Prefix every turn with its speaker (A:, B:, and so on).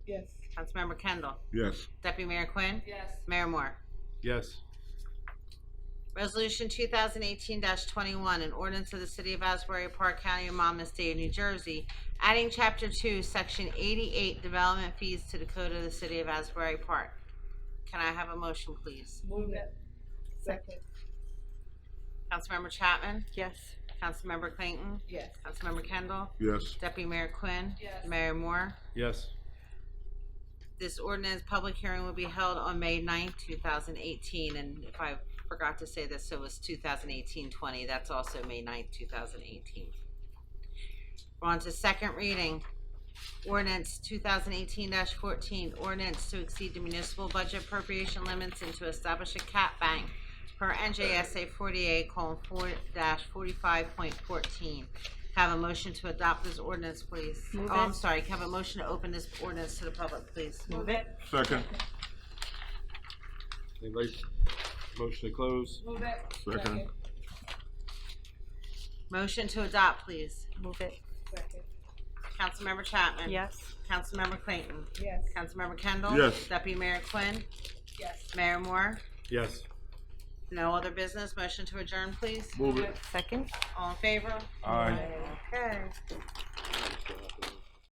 A: Yes.
B: Councilmember Kendall.
C: Yes.
B: Deputy Mayor Quinn.
A: Yes.
B: Mayor Moore.
C: Yes.
B: Resolution 2018-21, an ordinance of the City of Asbury Park, County of Monmouth, State of New Jersey, adding Chapter 2, Section 88, Development Fees to the Code of the City of Asbury Park. Can I have a motion, please?
A: Move it. Second.
B: Councilmember Chapman?
D: yes,
B: Councilmember Clayton?
A: Yes.
B: Councilmember Kendall?
C: Yes.
B: Deputy Mayor Quinn?
A: Yes.
B: Mayor Moore?
C: Yes.
B: This ordinance public hearing will be held on May 9th, 2018, and if I forgot to say this, so it was 2018-20, that's also May 9th, 2018. We're on to second reading, ordinance 2018-14, ordinance to exceed the municipal budget appropriation limits and to establish a cap bank per NJSA 48:4-45.14. Have a motion to adopt this ordinance, please.
D: Move
B: Oh, I'm
D: it.
B: sorry, can I have a motion to open this ordinance to the public, please?
D: move it,
C: Second.
E: Anybody, motion to close?
A: Move it.
C: Second.
B: Motion to adopt, please.
D: move it,
A: Second.
B: Councilmember Chapman.
D: yes,
B: Councilmember Clayton.
A: Yes.
B: Councilmember Kendall.
C: Yes.
B: Deputy Mayor Quinn.
A: Yes.
B: Mayor Moore.
E: Yes.
B: No other business. Motion to adjourn, please.
C: Move it.
D: second,
B: All in favor?
C: Aye.
B: Okay.